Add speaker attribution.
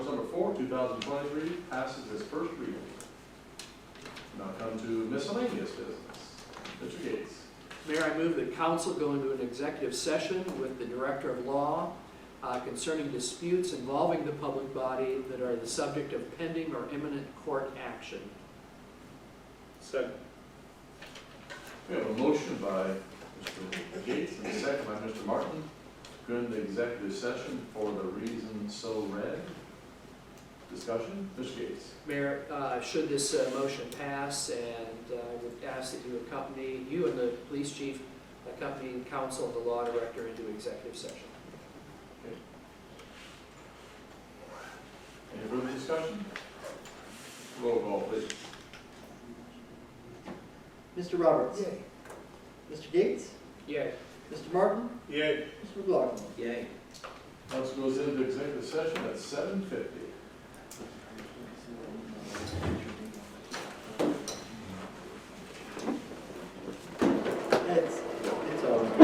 Speaker 1: two thousand twenty-three passes its first reading. Now come to miscellaneous business. Mr. Gates.
Speaker 2: Mayor, I move that council go into an executive session with the Director of Law uh, concerning disputes involving the public body that are the subject of pending or imminent court action.
Speaker 3: Second.
Speaker 1: We have a motion by Mr. Gates and a second by Mr. Martin. Go into executive session for the reason so read. Discussion, Mr. Gates.
Speaker 2: Mayor, uh, should this uh, motion pass, and uh, I would ask that you accompany, you and the police chief accompany council and the law director into executive session.
Speaker 1: Any further discussion? Roll call, please.
Speaker 4: Mr. Roberts. Mr. Gates.
Speaker 2: Yay.
Speaker 4: Mr. Martin.
Speaker 3: Yay.
Speaker 4: Mr. McLaughlin.
Speaker 2: Yay.
Speaker 1: Council goes into executive session at seven fifty.
Speaker 4: Heads.